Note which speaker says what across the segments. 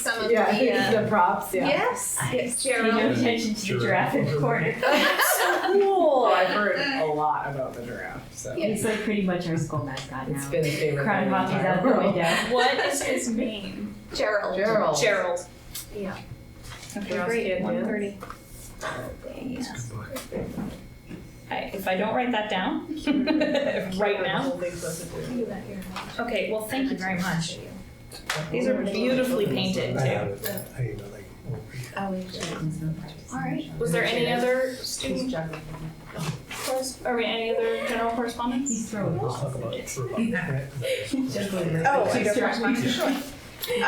Speaker 1: some of
Speaker 2: Yeah,
Speaker 1: the. Uh,
Speaker 2: the props, yeah.
Speaker 1: Yes. Yes,
Speaker 3: no
Speaker 1: Gerald.
Speaker 3: attention to the
Speaker 4: Giraffe.
Speaker 3: giraffe in the corner.
Speaker 2: Cool. I've heard a lot about the giraffe, so.
Speaker 1: Yeah.
Speaker 3: He's like pretty much our school mascot
Speaker 2: It's
Speaker 3: now.
Speaker 2: been a favorite.
Speaker 3: Crying
Speaker 2: my
Speaker 3: while he's
Speaker 2: entire
Speaker 3: out the
Speaker 2: world.
Speaker 3: window.
Speaker 5: What is his name?
Speaker 1: Gerald.
Speaker 2: Gerald.
Speaker 5: Gerald.
Speaker 1: Yeah.
Speaker 5: Okay,
Speaker 2: Gerald's
Speaker 5: great.
Speaker 2: kid,
Speaker 5: One
Speaker 2: yeah.
Speaker 5: thirty.
Speaker 4: It's good luck.
Speaker 5: I, if I don't write that down right now.
Speaker 1: Do that here.
Speaker 5: Okay. Well, thank you very much. These are beautifully painted
Speaker 4: I
Speaker 5: too.
Speaker 4: have it. I have it, like, over here.
Speaker 1: All right.
Speaker 5: Was there any other student? corres- Or any other general correspondence?
Speaker 3: He's throwing balls.
Speaker 4: Let's talk about it for about a minute.
Speaker 6: Oh, I don't
Speaker 3: Distract me.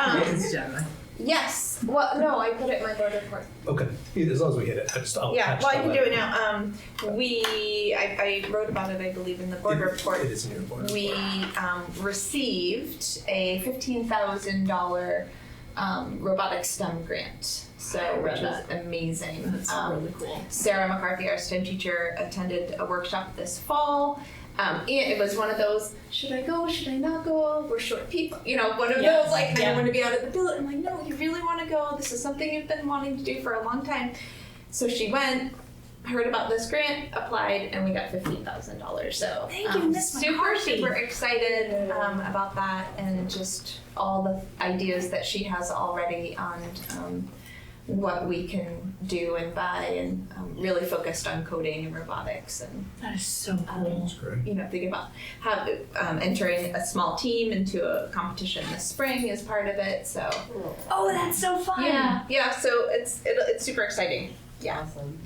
Speaker 6: Um,
Speaker 1: Yes. Well, no, I put it in my board report.
Speaker 4: Okay, as long as we hit it, I just, I'll.
Speaker 6: yeah,
Speaker 4: Oh, catch
Speaker 6: well, I can
Speaker 4: all
Speaker 6: do
Speaker 4: that.
Speaker 6: it now. Um, we, I, I wrote about it, I believe, in the board report.
Speaker 4: It is in your board
Speaker 6: We
Speaker 4: report.
Speaker 6: um, received
Speaker 1: A fifteen thousand dollar um, robotic STEM grant. So which
Speaker 6: uh,
Speaker 1: was amazing. um,
Speaker 2: cool.
Speaker 1: Sarah McCarthy, our STEM teacher, attended a workshop this fall. Um, and it was one of those, should I go? Should I not go? We're short people. You know, one of
Speaker 5: Yeah,
Speaker 1: those, like, I
Speaker 5: yeah.
Speaker 1: don't want to be out of the building. I'm like, no, you really want to go. This is something you've been wanting to do for a long time. So she went, heard about this grant, applied, and we got $15,000. So
Speaker 5: Thank you,
Speaker 1: um,
Speaker 5: Miss
Speaker 1: super,
Speaker 5: McCarthy.
Speaker 1: super excited um, about that and just all the ideas that she has already on. Um, what we can do and buy and um, really focused on coding and robotics and
Speaker 5: That is so
Speaker 1: um,
Speaker 4: That's great.
Speaker 1: you know thinking about how um, entering a small team into a competition this spring is part of it so
Speaker 5: Oh, that's so fun.
Speaker 1: yeah yeah so it's it, it's super exciting yeah
Speaker 4: I'm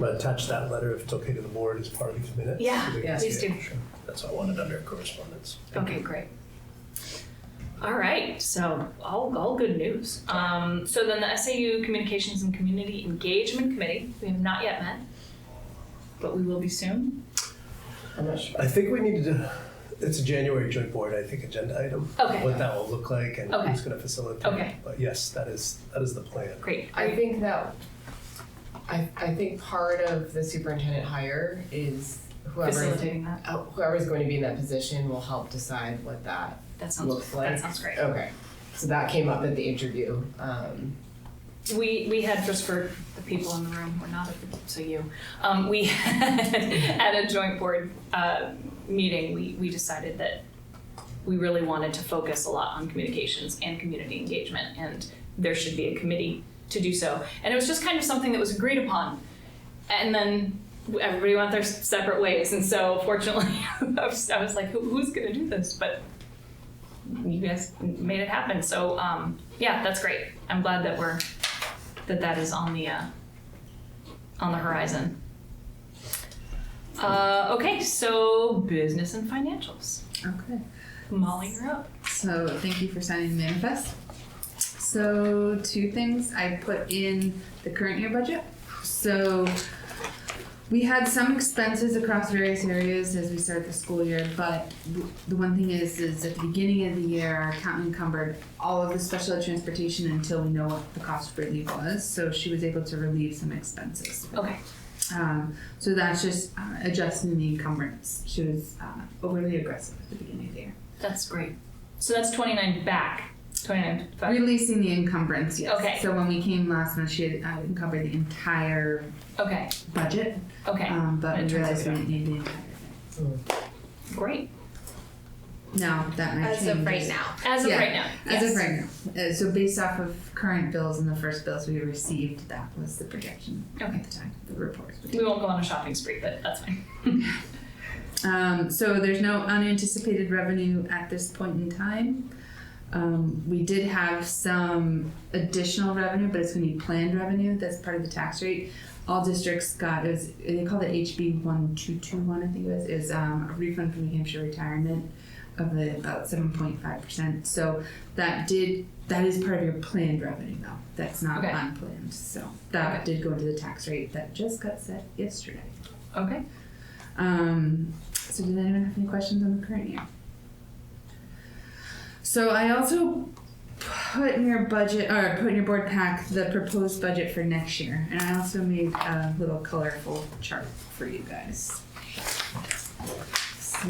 Speaker 4: gonna attach that letter if it's okay to the board as part of these minutes.
Speaker 1: Yeah,
Speaker 4: so they can
Speaker 2: yeah.
Speaker 4: see
Speaker 1: Please
Speaker 4: it.
Speaker 1: do.
Speaker 4: Sure. That's what I wanted under correspondence. Thank
Speaker 5: Okay, great. All right, so all, all good news. Um, so then the SAU Communications and Community Engagement Committee, we have not yet met, but we will be soon.
Speaker 4: you. I think we need to, do- it's a January joint board, I think, agenda item.
Speaker 5: Okay.
Speaker 4: What that will look like and
Speaker 5: Okay.
Speaker 4: who's gonna facilitate.
Speaker 5: Okay.
Speaker 4: But yes, that is, that is the plan.
Speaker 5: Great.
Speaker 2: I think that, I, I think part of the superintendent hire is whoever,
Speaker 5: Facilitating that.
Speaker 2: uh, whoever's going to be in that position will help decide what that
Speaker 5: That sounds,
Speaker 2: looks
Speaker 5: that
Speaker 2: like.
Speaker 5: sounds great.
Speaker 2: Okay, so that came up at the interview, um,
Speaker 5: We, we had, just for the people in the room, we're not, so you, um, we had, at a joint board, uh, meeting, we, we decided that we really wanted to focus a lot on communications and community engagement, and there should be a committee to do so. And it was just kind of something that was agreed upon, and then everybody went their separate ways, and so fortunately, I was, I was like, Who, who's gonna do this? But you guys made it happen, so, um, yeah, that's great. I'm glad that we're that that is on the uh, on the horizon. Uh, okay, so business and financials.
Speaker 7: Okay,
Speaker 5: Molly, you're up.
Speaker 7: so thank you for signing the manifest. So, two things I put in the current year budget. So, we had some expenses across various areas as we start the school year, but w- the one thing is, is at the beginning of the year, our accountant encumbered all of the special ed transportation until we know what the cost relief was, so she was able to relieve some expenses.
Speaker 5: Okay.
Speaker 7: Um, so that's just uh, adjusting the encumbrance. She was uh, overly aggressive at the beginning of the year.
Speaker 5: That's great. So that's 29 back. 29 back.
Speaker 7: Releasing the encumbrance, yes.
Speaker 5: Okay.
Speaker 7: So when we came last month, she had uh, encumbered the entire
Speaker 5: Okay.
Speaker 7: budget,
Speaker 5: Okay.
Speaker 7: um, but
Speaker 5: It
Speaker 7: we
Speaker 5: turns
Speaker 7: realized we
Speaker 5: out-
Speaker 7: didn't need the entire thing.
Speaker 5: Great.
Speaker 7: No, that might
Speaker 1: as of
Speaker 7: change.
Speaker 1: right now
Speaker 5: As of
Speaker 7: Yeah.
Speaker 5: right now.
Speaker 7: As
Speaker 5: yes.
Speaker 7: of right now. Uh, so based off of current bills and the first bills we received, that was the projection
Speaker 5: Okay.
Speaker 7: at the time, the reports. we did.
Speaker 5: We won't go on a shopping spree, but that's fine.
Speaker 7: Um, so there's no unanticipated revenue at this point in time. Um, we did have some additional revenue, but it's going to be planned revenue. That's part of the tax rate. All districts got it was they called it HB one two two one. I think it was is um, a refund from New Hampshire retirement of the, about seven point five percent. So that did that is part of your planned revenue though. That's not
Speaker 5: Okay.
Speaker 7: unplanned. So that did go into the tax rate that just got set yesterday.
Speaker 5: Okay.
Speaker 7: Um, so did anyone have any questions on the current year? So I also put in your budget or put in your board pack the proposed budget for next year, and I also made a little colorful chart for you guys. So